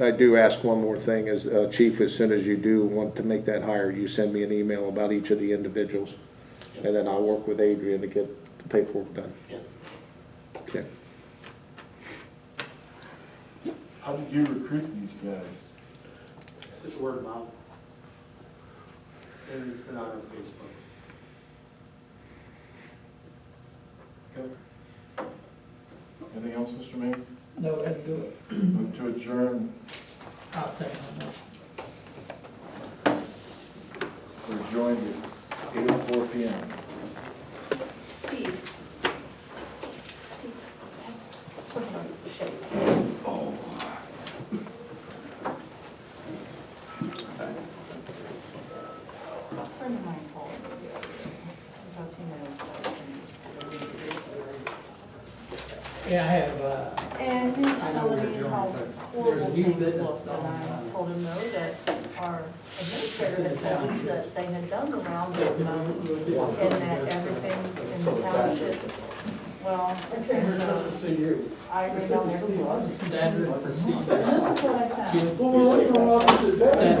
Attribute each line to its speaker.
Speaker 1: I do ask one more thing, is, uh, Chief, as soon as you do want to make that hire, you send me an email about each of the individuals, and then I'll work with Adrian to get the paperwork done.
Speaker 2: Yeah.
Speaker 1: Okay.
Speaker 3: How did you recruit these guys?
Speaker 2: Just word of mouth. And it's been out on Facebook. Okay.
Speaker 3: Anything else, Mr. Mayor?
Speaker 4: No, we're gonna do it.
Speaker 3: Move to adjourn,
Speaker 4: I'll second the motion.
Speaker 3: we're joined at eight oh four P M.
Speaker 5: Steve. Steve. Something shake. Oh. Turn the mic off. Because he knows.
Speaker 4: Yeah, I have, uh,
Speaker 5: And he was telling me how horrible
Speaker 4: There's new
Speaker 5: things
Speaker 4: business
Speaker 5: looked, and I
Speaker 4: on-
Speaker 5: told him no, that our administrator had told us that they had done the rounds of mows and that everything in the township, well, and so
Speaker 6: See you.
Speaker 5: I agree on everything.
Speaker 6: Standard procedure.
Speaker 5: This is what I found.
Speaker 4: June
Speaker 6: Well, we're late for office today.